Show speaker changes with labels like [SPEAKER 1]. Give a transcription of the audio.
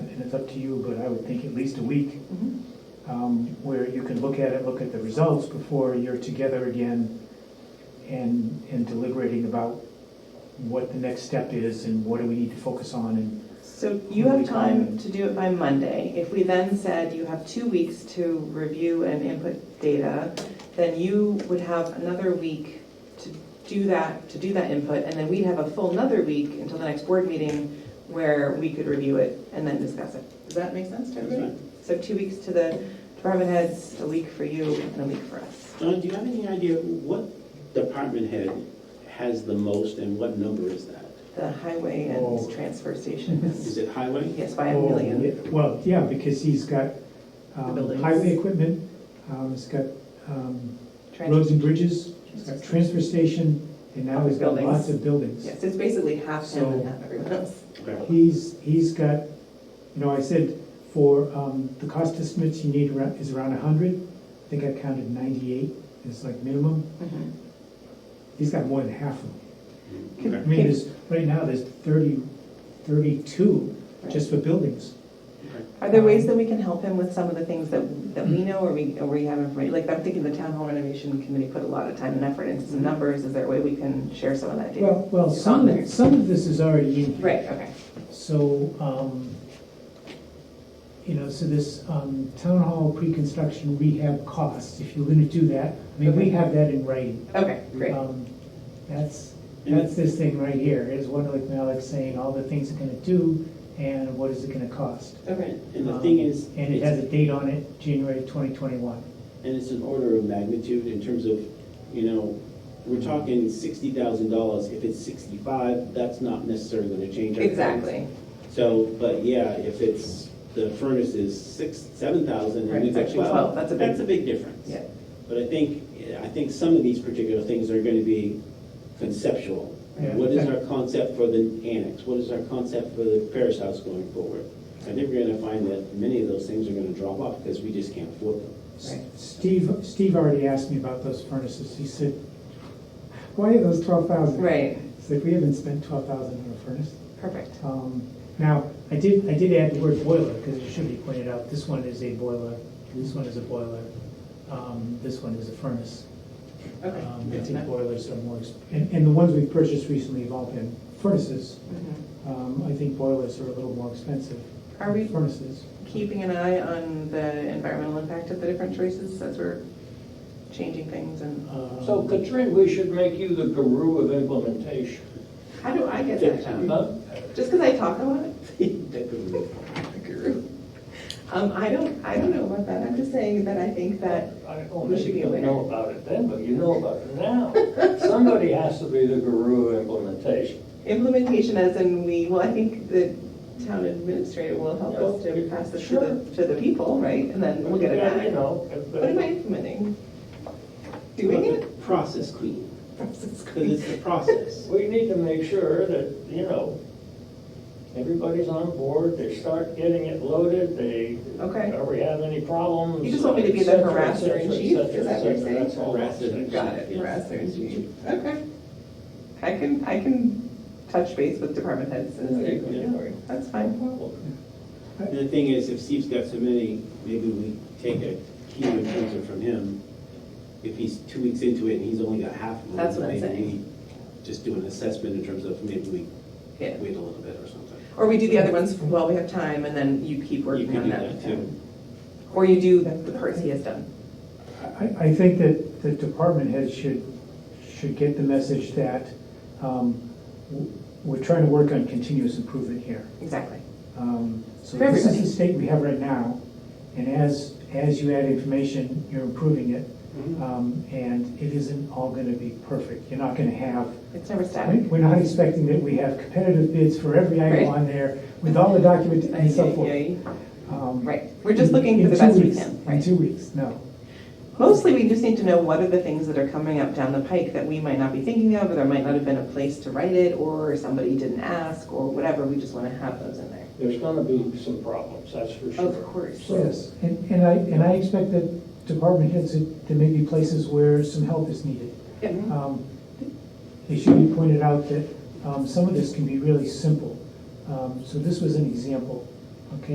[SPEAKER 1] and it's up to you, but I would think at least a week,
[SPEAKER 2] Mhm.
[SPEAKER 1] um, where you can look at it, look at the results before you're together again and, and deliberating about what the next step is and what do we need to focus on and,
[SPEAKER 2] So you have time to do it by Monday. If we then said you have two weeks to review and input data, then you would have another week to do that, to do that input, and then we'd have a full another week until the next board meeting where we could review it and then discuss it. Does that make sense to everybody? So two weeks to the department heads, a week for you, and a week for us.
[SPEAKER 3] Don, do you have any idea what department head has the most and what number is that?
[SPEAKER 2] The highway
[SPEAKER 1] Oh.
[SPEAKER 2] and transfer station
[SPEAKER 3] Is
[SPEAKER 2] is,
[SPEAKER 3] it highway?
[SPEAKER 2] yes, by a million.
[SPEAKER 1] Oh, yeah, Well, yeah, because he's got
[SPEAKER 2] The
[SPEAKER 1] um,
[SPEAKER 2] buildings.
[SPEAKER 1] highway equipment, um, he's got um,
[SPEAKER 2] Trans-
[SPEAKER 1] roads and bridges, he's got transfer station, and now he's got
[SPEAKER 2] Buildings.
[SPEAKER 1] lots of buildings.
[SPEAKER 2] Yes, it's basically half him and
[SPEAKER 1] So-
[SPEAKER 2] half everyone else.
[SPEAKER 3] Okay.
[SPEAKER 1] He's, he's got, you know, I said for um, the cost estimates you need around- is around 100. I think I counted 98 is like minimum.
[SPEAKER 2] Mhm.
[SPEAKER 1] He's got more than half of them. I
[SPEAKER 3] Okay.
[SPEAKER 1] mean, there's, right now, there's 30, 32 just um, for buildings.
[SPEAKER 2] Are there ways that we can help him with some of the things that, that we know or we, or we have information? Like, I'm thinking the town hall renovation committee put a lot of time and effort into some numbers. Is there a way we can share some of that data?
[SPEAKER 1] Mm-hmm. Well, well,
[SPEAKER 2] It's
[SPEAKER 1] some
[SPEAKER 2] on
[SPEAKER 1] of,
[SPEAKER 2] there.
[SPEAKER 1] it- some of this is already in here.
[SPEAKER 2] Right, okay.
[SPEAKER 1] So, um, you know, so this, um, town hall pre-construction rehab costs, if you're gonna do that, I mean, we
[SPEAKER 2] Okay.
[SPEAKER 1] have that in writing.
[SPEAKER 2] Okay, great.
[SPEAKER 1] Um, That's, that's this thing right here, is Wonder Lake Malik saying all the things it's gonna do and what is it gonna cost.
[SPEAKER 2] Okay.
[SPEAKER 3] And the thing
[SPEAKER 1] Um,
[SPEAKER 3] is,
[SPEAKER 1] And it has
[SPEAKER 3] it's-
[SPEAKER 1] a date on it, January twenty twenty-one.
[SPEAKER 3] and it's an order of magnitude in terms of, you know, we're talking sixty thousand dollars. If it's sixty-five, that's not necessarily gonna change our. plans.
[SPEAKER 2] Exactly.
[SPEAKER 3] So, but yeah, if it's, the furnace is six, seven thousand
[SPEAKER 2] Right,
[SPEAKER 3] and we've
[SPEAKER 2] it's
[SPEAKER 3] got
[SPEAKER 2] actually
[SPEAKER 3] twelve,
[SPEAKER 2] 12,
[SPEAKER 3] that's
[SPEAKER 2] that's
[SPEAKER 3] a
[SPEAKER 2] a big-
[SPEAKER 3] big difference.
[SPEAKER 2] Yeah.
[SPEAKER 3] But I think, I think some of these particular things are gonna be conceptual.
[SPEAKER 1] Yeah.
[SPEAKER 3] What is our concept for the annex? What is our concept for the Paris house going forward? I think we're gonna find that many of those things are gonna drop off because we just can't afford them.
[SPEAKER 2] Right.
[SPEAKER 1] Steve, Steve already asked me about those furnaces, he said, why are those twelve thousand?
[SPEAKER 2] Right,
[SPEAKER 1] It's like, we haven't spent twelve thousand on a furnace.
[SPEAKER 2] perfect.
[SPEAKER 1] Um, Now, I did, I did add the word boiler, because it should be pointed out, this one is a boiler, this one is a boiler, um, this one is a furnace.
[SPEAKER 2] Okay.
[SPEAKER 1] Um, I think boilers are more, exp- and, and the ones we've purchased recently have all been furnaces.
[SPEAKER 2] Mhm.
[SPEAKER 1] Um, I think boilers are a little more expensive
[SPEAKER 2] Are
[SPEAKER 1] than
[SPEAKER 2] we
[SPEAKER 1] furnaces.
[SPEAKER 2] keeping an eye on the environmental impact of the different choices as we're changing things and?
[SPEAKER 1] Um,
[SPEAKER 4] So Katrine, we should make you the guru of implementation.
[SPEAKER 2] How do I get that job?
[SPEAKER 4] Huh?
[SPEAKER 2] Just because I talk a lot?
[SPEAKER 3] That could be-
[SPEAKER 2] guru. Um, I don't, I don't know about that, I'm just saying that I think that,
[SPEAKER 4] I don't
[SPEAKER 2] We should
[SPEAKER 4] think
[SPEAKER 2] be
[SPEAKER 4] you
[SPEAKER 2] aware.
[SPEAKER 4] know about it then, but you know about it now. Somebody has to be the guru of implementation.
[SPEAKER 2] implementation as in we, well, I think the town administrator will help us to pass this to the, to the people, right? And then we'll get it
[SPEAKER 4] Yeah, You
[SPEAKER 2] back.
[SPEAKER 4] know.
[SPEAKER 2] What am I implementing? Doing
[SPEAKER 3] But the
[SPEAKER 2] it?
[SPEAKER 3] Process queen, because it's the process.
[SPEAKER 4] We need to make sure that, you know, everybody's on board, they start getting it loaded, they,
[SPEAKER 2] Okay.
[SPEAKER 4] are we having any problems?
[SPEAKER 2] You just want me to be the
[SPEAKER 4] et cetera,
[SPEAKER 2] harasser
[SPEAKER 4] et
[SPEAKER 2] in
[SPEAKER 4] cetera, et
[SPEAKER 2] chief?
[SPEAKER 4] cetera,
[SPEAKER 2] Is that what you're
[SPEAKER 4] et cetera.
[SPEAKER 2] saying?
[SPEAKER 4] That's all.
[SPEAKER 3] Harasser.
[SPEAKER 2] Got it, harassment in chief, okay. I can, I can touch base with department heads and say,
[SPEAKER 3] Yeah.
[SPEAKER 2] that's fine.
[SPEAKER 3] And the thing is, if Steve's got so many, maybe we take a key influencer from him. If he's two weeks into it and he's only got half of them.
[SPEAKER 2] That's what I'm saying.
[SPEAKER 3] Maybe we just do an assessment in terms of maybe we
[SPEAKER 2] Yeah.
[SPEAKER 3] wait a little bit or something.
[SPEAKER 2] Or we do the other ones while we have time and then you keep
[SPEAKER 3] You
[SPEAKER 2] working
[SPEAKER 3] could
[SPEAKER 2] on
[SPEAKER 3] do
[SPEAKER 2] that.
[SPEAKER 3] that too.
[SPEAKER 2] Or you do the parts he has done.
[SPEAKER 1] I, I think that the department heads should, should get the message that, um, w- we're trying to work on continuous improvement here.
[SPEAKER 2] Exactly.
[SPEAKER 1] Um, So
[SPEAKER 2] For
[SPEAKER 1] this is
[SPEAKER 2] everybody.
[SPEAKER 1] the state we have right now, and as, as you add information, you're improving it,
[SPEAKER 2] Mm-hmm.
[SPEAKER 1] um, and it isn't all gonna be perfect. You're not gonna have,
[SPEAKER 2] It's never
[SPEAKER 1] I mean,
[SPEAKER 2] static.
[SPEAKER 1] we're not expecting that we have competitive bids for every
[SPEAKER 2] Right.
[SPEAKER 1] item on there with all the documents and so forth.
[SPEAKER 2] Yay.
[SPEAKER 1] Um,
[SPEAKER 2] Right, we're just looking
[SPEAKER 1] in
[SPEAKER 2] for the
[SPEAKER 1] two
[SPEAKER 2] best we
[SPEAKER 1] weeks-
[SPEAKER 2] can,
[SPEAKER 1] In
[SPEAKER 2] right?
[SPEAKER 1] two weeks, no.
[SPEAKER 2] Mostly, we just need to know what are the things that are coming up down the pike that we might not be thinking of, or there might not have been a place to write it, or somebody didn't ask, or whatever, we just wanna have those in there.
[SPEAKER 4] There's gonna be some problems, that's for sure.
[SPEAKER 2] Of course.
[SPEAKER 4] So-
[SPEAKER 1] Yes, and, and I, and I expect that department heads, that there may be places where some help is needed.
[SPEAKER 2] Yep.
[SPEAKER 1] Um, It should be pointed out that um, some of this can be really simple. Um, So this was an example.